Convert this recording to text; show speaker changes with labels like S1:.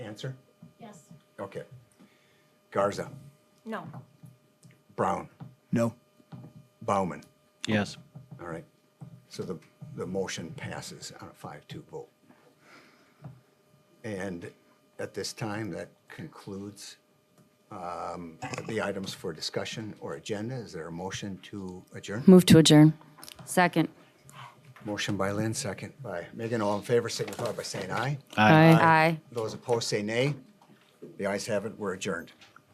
S1: answer?
S2: Yes.
S1: Okay. Garza,
S2: No.
S1: Brown,
S3: No.
S1: Bauman.
S4: Yes.
S1: All right. So the, the motion passes on a five-two vote. And at this time, that concludes um, the items for discussion or agenda. Is there a motion to adjourn?
S5: Move to adjourn. Second.
S1: Motion by Lynn, second by Megan. All in favor, signify by saying aye.
S5: Aye. Aye.
S1: Those opposed, say nay. The ayes have it. We're adjourned.